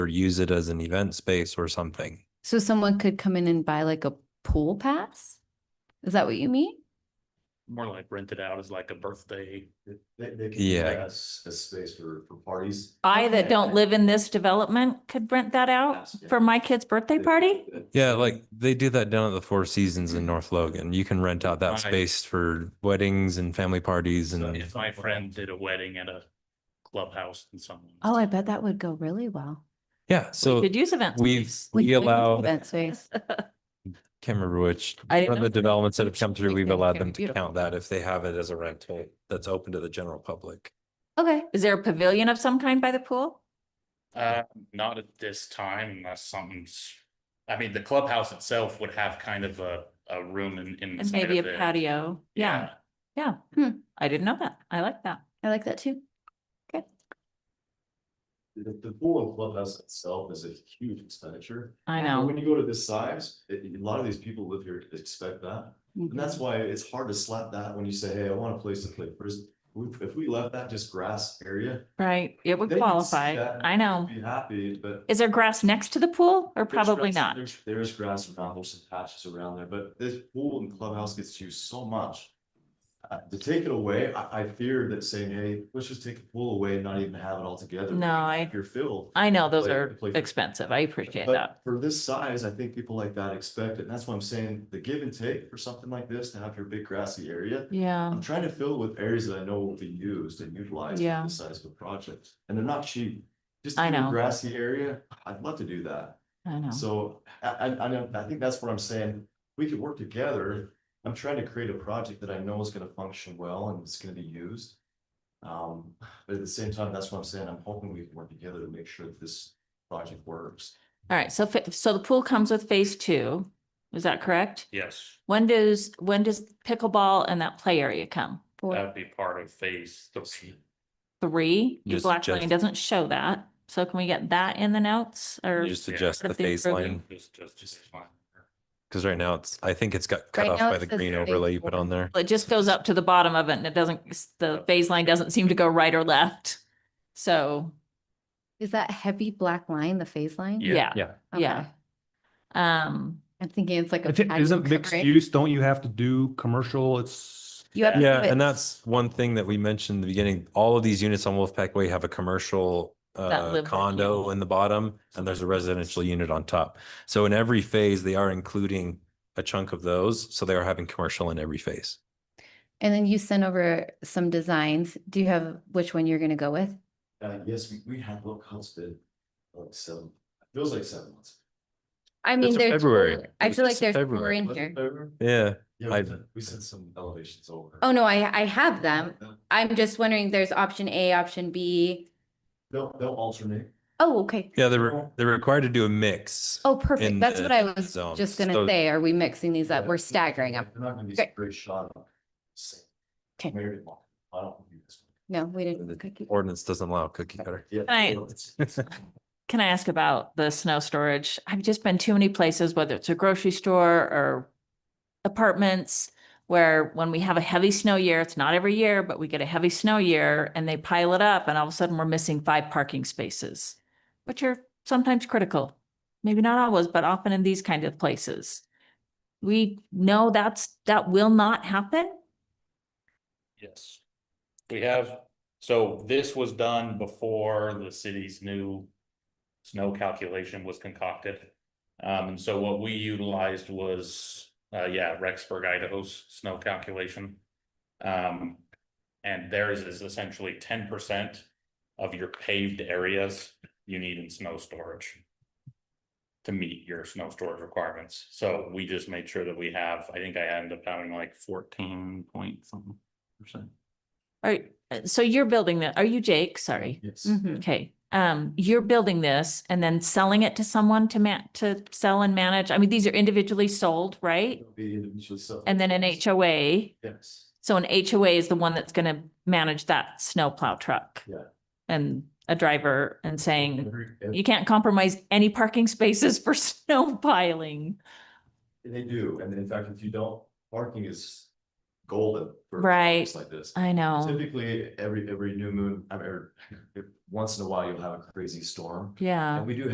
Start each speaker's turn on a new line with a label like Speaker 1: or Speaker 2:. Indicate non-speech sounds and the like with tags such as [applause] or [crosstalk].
Speaker 1: or use it as an event space or something.
Speaker 2: So someone could come in and buy like a pool pass? Is that what you mean?
Speaker 3: more like rented out as like a birthday.
Speaker 4: They, they can
Speaker 1: Yeah.
Speaker 4: make us a space for, for parties.
Speaker 5: I
Speaker 2: Oh, Okay.
Speaker 5: that don't live in this development could rent that out
Speaker 4: Yes, yeah.
Speaker 5: Oh, for my kid's birthday party?
Speaker 1: Yeah, like they do that down at the Four Seasons in North Logan. You can rent out that
Speaker 3: Right.
Speaker 1: space for weddings and family parties
Speaker 3: So
Speaker 1: and
Speaker 3: If my friend did a wedding at a clubhouse and someone.
Speaker 2: Oh, I bet that would go really well.
Speaker 1: yeah, so
Speaker 5: Could use events.
Speaker 1: we've
Speaker 2: We
Speaker 1: we
Speaker 2: could
Speaker 1: allow
Speaker 2: Event space.
Speaker 1: can't remember which one
Speaker 5: I didn't
Speaker 1: of
Speaker 5: know.
Speaker 1: the developments that have come through,
Speaker 2: Like,
Speaker 1: we've
Speaker 2: they're
Speaker 1: allowed
Speaker 2: very
Speaker 1: them to
Speaker 2: beautiful.
Speaker 1: count that if they have it as a rental that's open to the general public.
Speaker 2: Okay.
Speaker 5: Is there a pavilion of some kind by the pool?
Speaker 3: Uh, not at this time unless something's, I mean, the clubhouse itself would have kind of a, a room in, in.
Speaker 5: And maybe a patio? Yeah, yeah.
Speaker 2: Hmm.
Speaker 5: I didn't know that. I like that.
Speaker 2: I like that too.
Speaker 4: The, the pool and clubhouse itself is a huge expenditure.
Speaker 5: I
Speaker 4: But
Speaker 5: know.
Speaker 4: When you go to this size, it- a lot of these people live here expect that. And that's why it's hard to slap that when you say, hey, I want a place to play first. If we left that just grass area,
Speaker 5: Right. It would
Speaker 4: They can see
Speaker 5: qualify.
Speaker 4: that.
Speaker 5: I know.
Speaker 4: I'd be happy, but.
Speaker 5: Is there grass next to the pool or
Speaker 4: There's
Speaker 5: probably
Speaker 4: grass-
Speaker 5: not?
Speaker 4: there's- There is grass around, there's some patches around there, but this pool and clubhouse gets used so much. Uh, to take it away, I, I fear that saying, hey, let's just take the pool away and not even have it all together.
Speaker 5: No, I-
Speaker 4: You're filled.
Speaker 5: I know those
Speaker 4: Play-
Speaker 5: are
Speaker 4: play-
Speaker 5: expensive. I appreciate that.
Speaker 4: But for this size, I think people like that expect it. And that's why I'm saying the give and take for something like this to have your big grassy area.
Speaker 5: Yeah.
Speaker 4: I'm trying to fill with areas that I know will be used and utilized
Speaker 5: Yeah.
Speaker 4: for this size of a project, and they're not cheap. Just
Speaker 5: I
Speaker 4: a
Speaker 5: know.
Speaker 4: grassy area, I'd love to do that.
Speaker 5: I know.
Speaker 4: So I, I, I know, I think that's what I'm saying. We could work together. I'm trying to create a project that I know is gonna function well and it's gonna be used. Um, but at the same time, that's what I'm saying. I'm hoping we can work together to make sure that this project works.
Speaker 5: All right. So, fa- so the pool comes with phase two. Is that correct?
Speaker 3: Yes,
Speaker 5: When does, when does pickleball and that play area come?
Speaker 3: that'd be part of phase three.
Speaker 5: Three? Your
Speaker 1: Just-
Speaker 5: black
Speaker 1: just-
Speaker 5: line doesn't show that. So can we get that in the notes or?
Speaker 1: You just adjust the
Speaker 5: Something
Speaker 1: baseline
Speaker 5: broken.
Speaker 3: Just, just, just fine.
Speaker 1: because right now it's I think it's got cut
Speaker 2: Right
Speaker 1: off
Speaker 2: now
Speaker 1: by
Speaker 2: it
Speaker 1: the
Speaker 2: says
Speaker 1: green
Speaker 2: phase
Speaker 1: overlay you put
Speaker 2: four.
Speaker 1: on there.
Speaker 5: It just goes up to the bottom of it and it doesn't,
Speaker 1: Uh,
Speaker 5: the phase line doesn't seem to go right or left. So,
Speaker 2: Is that heavy black line, the phase line?
Speaker 3: Yeah.
Speaker 5: yeah,
Speaker 6: Yeah.
Speaker 5: yeah.
Speaker 2: Okay.
Speaker 5: Um,
Speaker 2: I'm thinking it's like a.
Speaker 6: If it
Speaker 2: patio
Speaker 6: isn't mixed
Speaker 2: covering.
Speaker 6: use, don't you have to do commercial? It's,
Speaker 2: You have to
Speaker 1: Yeah,
Speaker 2: do it
Speaker 1: and that's one thing that we mentioned in the beginning. All of these units on Wolfpack Way have a commercial
Speaker 5: live
Speaker 1: uh,
Speaker 5: with you.
Speaker 1: condo in the bottom, and there's a residential unit on top. So in every phase, they are including a chunk of those. So they are having commercial in every phase.
Speaker 2: And then you sent over some designs. Do you have which one you're gonna go with?
Speaker 4: Uh, yes, we, we had local house bid, like seven, feels like seven months.
Speaker 2: I mean,
Speaker 1: in
Speaker 2: there's.
Speaker 1: February.
Speaker 2: four-
Speaker 1: It
Speaker 2: I
Speaker 1: was
Speaker 2: feel like
Speaker 1: just
Speaker 2: there's four
Speaker 1: February,
Speaker 2: in
Speaker 4: Was it
Speaker 2: here.
Speaker 4: better?
Speaker 1: Yeah.
Speaker 4: Yeah, we
Speaker 1: I-
Speaker 4: sent- we sent some elevations over.
Speaker 2: Oh, no, I, I have them. I'm just wondering, there's option A, option B.
Speaker 4: They'll, they'll alternate.
Speaker 2: Oh, okay.
Speaker 1: Yeah, they're they're required to do a mix.
Speaker 2: Oh, perfect.
Speaker 1: In
Speaker 2: That's
Speaker 1: the
Speaker 2: what I was
Speaker 1: zones.
Speaker 2: just gonna
Speaker 1: So-
Speaker 2: say. Are we mixing these up?
Speaker 4: Yeah.
Speaker 2: We're staggering them.
Speaker 4: They're not gonna be
Speaker 2: Great.
Speaker 4: great shot. on same
Speaker 2: Okay.
Speaker 4: Mary Lou. I don't do this.
Speaker 2: No, we
Speaker 1: The
Speaker 2: didn't. cookie.
Speaker 1: Ordinance doesn't allow cookie cutter.
Speaker 4: Yeah.
Speaker 5: Right.
Speaker 4: it's-
Speaker 5: [laughs]
Speaker 4: it's-
Speaker 5: Can I ask about the snow storage? I've just been too many places, whether it's a grocery store or apartments, where when we have a heavy snow year, it's not every year, but we get a heavy snow year and they pile it up and all of a sudden we're missing five parking spaces, which are sometimes critical. Maybe not always, but often in these kind of places. We know that's, that will not happen.
Speaker 3: Yes. We have, so this was done before the city's new snow calculation was concocted. Um, and so what we utilized was, uh, yeah, Rexburg, Idaho's snow calculation. Um, and theirs is essentially ten percent of your paved areas you need in snow storage to meet your snow storage requirements. So we just made sure that we have, I think I ended up having like fourteen point something percent.
Speaker 5: All right, uh, so you're building that, are you Jake? Sorry.
Speaker 4: Yes.
Speaker 2: Mhm.
Speaker 5: Okay, um, you're building this and then selling it to someone to ma- to sell and manage. I mean, these are individually sold,
Speaker 2: Mm-hmm.
Speaker 5: right?
Speaker 4: It'll be individually sold.
Speaker 5: And then an HOA,
Speaker 4: Yes,
Speaker 5: so an HOA is the one that's gonna manage that snowplow truck.
Speaker 4: Yeah. Mm-hmm.
Speaker 5: And a driver and saying,
Speaker 4: Every- and
Speaker 5: you can't compromise any parking spaces for [laughs] snow piling.
Speaker 4: they do, and in fact, if you don't, parking is golden. for
Speaker 5: Right.
Speaker 4: things Like this.
Speaker 5: I know,
Speaker 4: [laughs] Typically, every, every new moon, I mean, every- once in a while, you'll have a crazy storm.
Speaker 5: yeah.
Speaker 4: And we do